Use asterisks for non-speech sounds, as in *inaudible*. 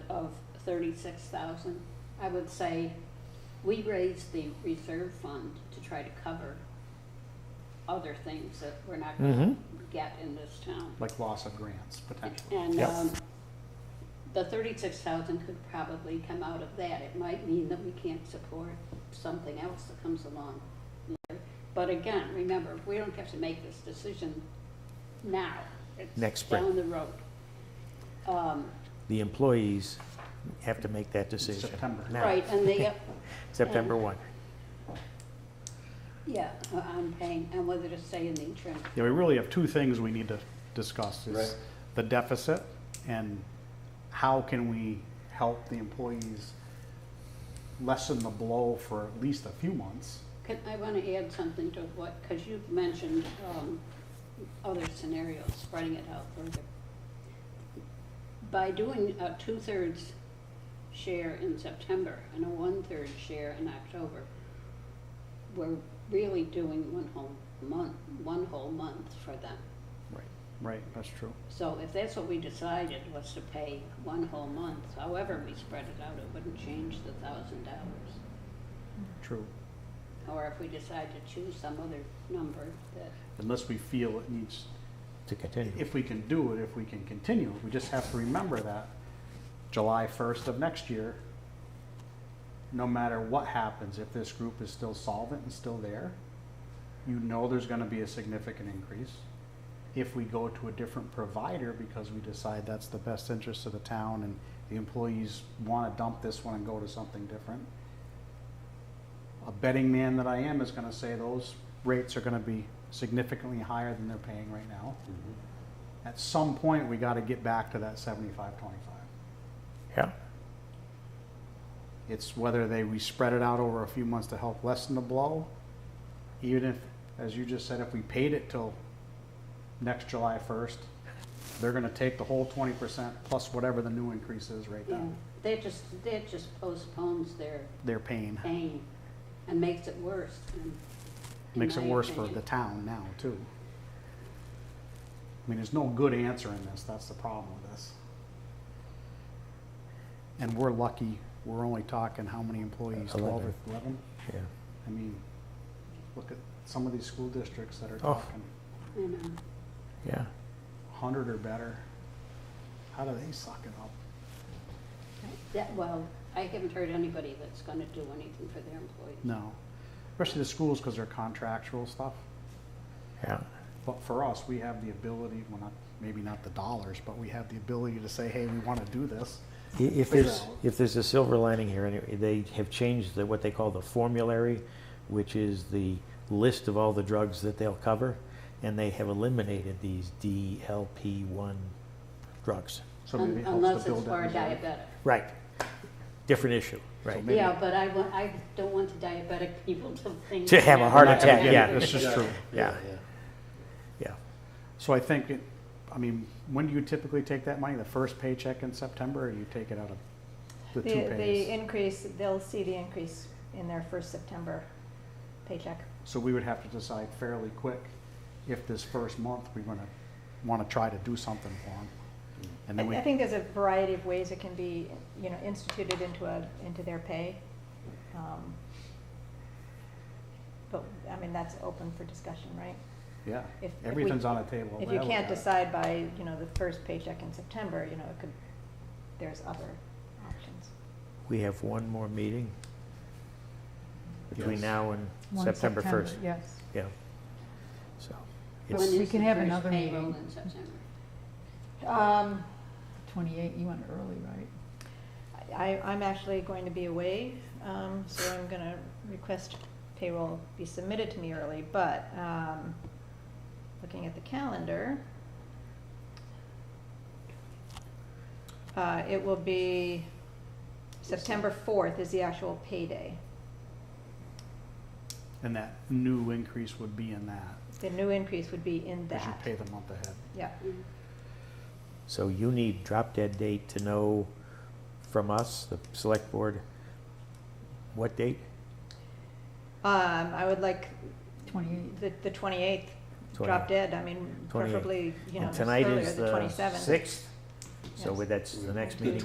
of thirty-six thousand, I would say we raised the reserve fund to try to cover other things that we're not Mm-hmm. gonna get in this town. like loss of grants potentially. And, Yep. um, the thirty-six thousand could probably come out of that. It might mean that we can't support something else that comes along later. But again, remember, we don't have to make this decision now. It's Next spring. Down the road. Um, The employees have to make that decision. September. now, right, and *laughs* the, September 1. yeah, on paying, and whether to stay in the insurance. Yeah, we really have two things we need to discuss is Right. the deficit and how can we help the employees lessen the blow for at least a few months? Could, I want to add something to what, because you've mentioned, um, other scenarios, spreading it out further. By doing a two-thirds share in September and a one-third share in October, we're really doing one whole month, one whole month for them. Right. Right, that's true. So if that's what we decided, was to pay one whole month, however we spread it out, it wouldn't change the thousand dollars. True. Or if we decide to choose some other number that Unless we feel it needs, To continue. if we can do it, if we can continue, we just have to remember that July first of next year, no matter what happens, if this group is still solvent and still there, you know there's gonna be a significant increase. If we go to a different provider because we decide that's the best interest of the town and the employees wanna dump this one and go to something different, a betting man that I am is gonna say those rates are gonna be significantly higher than they're paying right now. At some point, we gotta get back to that seventy-five, twenty-five. Yeah. It's whether they, we spread it out over a few months to help lessen the blow. Even if, as you just said, if we paid it till next July first, they're gonna take the whole twenty percent plus whatever the new increase is right Yeah, then. that just, that just postpones their They're paying, pain and makes it worse. in- in makes it my worse for the opinion. town now too. I mean, there's no good answer in this, that's the problem with this. And we're lucky, we're only talking how many employees, twelve or Eleven. eleven? Yeah. I mean, look at some of these school districts that are Oh. talking You know, Yeah. hundred or better. How do they suck it up? that, well, I haven't heard anybody that's gonna do anything for their employees. No, especially the schools because they're contractual stuff. Yeah. But for us, we have the ability, well, not, maybe not the dollars, but we have the ability to say, hey, we want to do this. I- If Figure there's, out. if there's a silver lining here, anyway, they have changed the, what they call the formulary, which is the list of all the drugs that they'll cover, and they have eliminated these DLP-1 drugs. So maybe Un- it helps Unless to it's build for a that reserve. diabetic. Right. Different issue, right. maybe- Yeah, but I want, I don't want the diabetic people to think. To have a that- heart Not gonna attack, get it. yeah. That's just true. Yeah. Yeah. So I think, it- I mean, when do you typically take that money? The first paycheck in September or you take it out of the The, two the pays? increase, they'll see the increase in their first September paycheck. So we would have to decide fairly quick if this first month we're going to want to try to do something for them. And I, then we, I think there's a variety of ways it can be, you know, instituted into a, into their pay. Um, But, I mean, that's open for discussion, right? yeah, if- if we- everything's on the table. If you whatever we have. can't decide by, you know, the first paycheck in September, you know, it could, there's other options. We have one more meeting between Yes. now and One September 1st. Yes. Yeah. So, When it's, we is can the have first another payroll meeting. in September? Um, Twenty-eight, you went early, right? I, I'm actually going to be away, um, so I'm gonna request payroll be submitted to me early, but, um, looking at the calendar, uh, it will be September fourth is the actual payday. And that new increase would be in that, The new increase would be in because you that. pay the month ahead. Yeah, Mm. so you need drop dead date to know from us, the select board, what date? um, I would like Twenty-eight. the, the twenty-eighth, 28th. drop dead, I mean, 28th. preferably, you know, And tonight earlier, is the the twenty-seventh. 6th, so Yes. that's the next meeting.